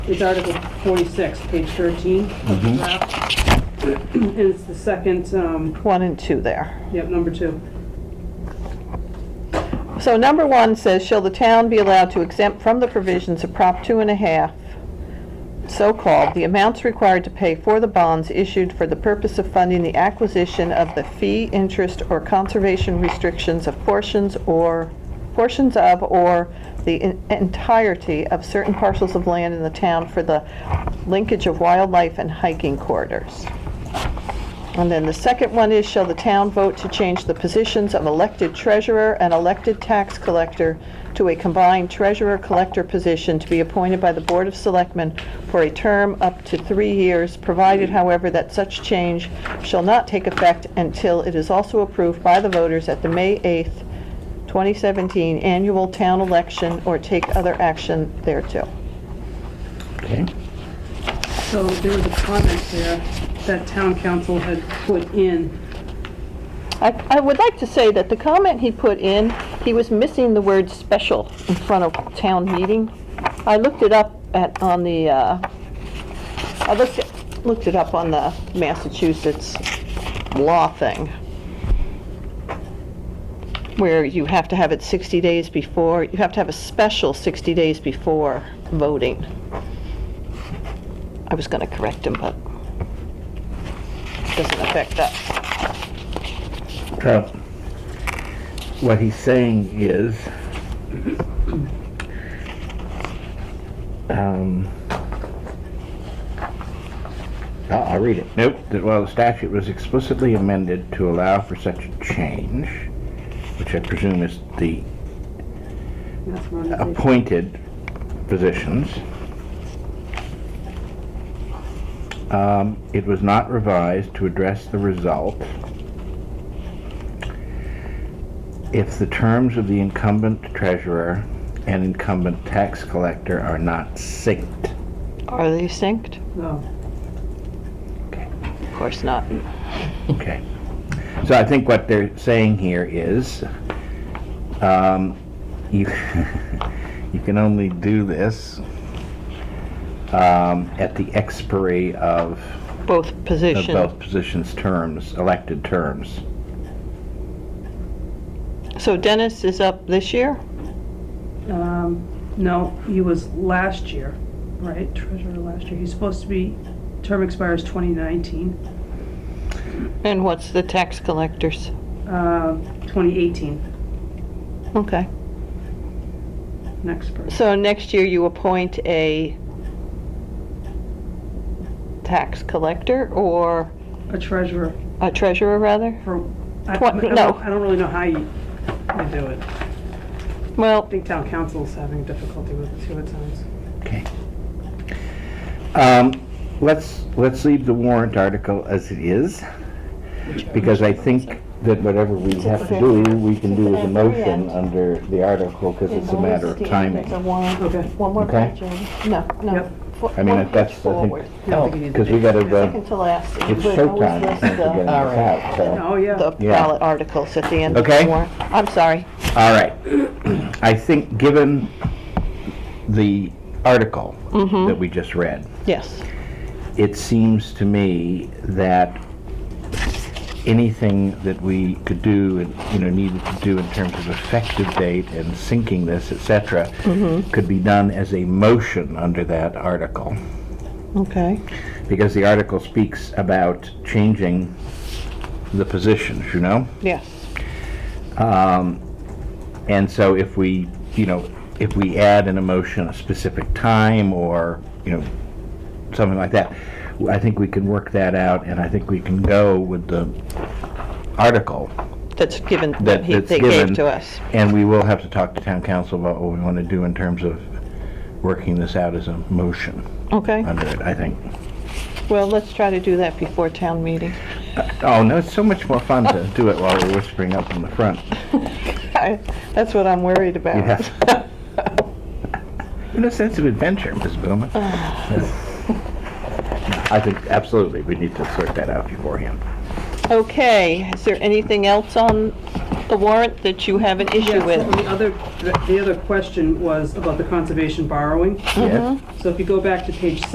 is Article 46, page 13 of the draft. And it's the second, um, One and two there. yep, number two. So number one says, shall the town be allowed to exempt from the provisions of Prop two and a half, so-called, the amounts required to pay for the bonds issued for the purpose of funding the acquisition of the fee, interest, or conservation restrictions of portions or, portions of, or the en- entirety of certain parcels of land in the town for the linkage of wildlife and hiking corridors. And then the second one is, shall the town vote to change the positions of elected treasurer and elected tax collector to a combined treasurer-collector position to be appointed by the Board of Selectmen for a term up to three years, provided, however, that such change shall not take effect until it is also approved by the voters at the May 8th, 2017 annual town election or take other action thereto. Okay. So there was a comment there that town council had put in. I, I would like to say that the comment he put in, he was missing the word special in front of town meeting. I looked it up at, on the, uh, I looked, it- looked it up on the Massachusetts law thing, where you have to have it 60 days before, you have to have a special 60 days before voting. I was gonna correct him, but it doesn't affect us. So, what he's saying is, um, uh, I'll, I'll read it. Note that while the statute was explicitly amended to allow for such a change, which I presume is the That's what I'm saying. appointed positions. Um, It was not revised to address the result if the terms of the incumbent treasurer and incumbent tax collector are not synced. Are they synced? No. Of course not. Okay. So I think what they're saying here is, um, you, you can only do this, um, at the expiry of, Both of position. both positions' terms, elected terms. So Dennis is up this year? Um, No, he was last year, right? Treasurer last year. He's supposed to be, term expires 2019, And what's the tax collectors? uh, 2018, Okay. next person. So next year you appoint a tax collector or A treasurer a treasurer, rather? for, I I What? don't No. I don't really know how you you do it. I Well, think town council's having difficulty with it too at times. Okay. Um, let's, let's leave the warrant article as it is, because I think that whatever we have to do, we can do as a motion under the article, because it's a matter of timing. Okay. One more Okay. page, no, no. Yep. Fo- I mean, one if that's, page I think, forward. because we gotta, uh, Second to last. it's But always showtime, I list think, we're getting this the- out, so. Oh, yeah. The Yeah. ballot articles at the end of Okay. the warrant. I'm sorry. All right. I think, given the article that we just read, Yes. it seems to me that anything that we could do, and you know, needed to do in terms of effective date and syncing this, et cetera, could be done as a motion under that article. Okay. Because the article speaks about changing the positions, you know? Yes. And so if we, you know, if we add in a motion a specific time or, you know, something like that, I think we can work that out and I think we can go with the article that's given, that that, he- that's they given. gave to us. And we will have to talk to town council about what we want to do in terms of working this out as a motion Okay, under it, I think. well, let's try to do that before town meeting. Oh, no, it's so much more fun to do it while we're whispering up in the front. I- That's what I'm worried about. Yeah. In a sense of adventure, Ms. Bowman. I think absolutely we need to sort that out beforehand. Okay, is there anything else on the warrant that you have an issue Yes, with? and The other, the other question was about the conservation borrowing. Yes? So if you go back to page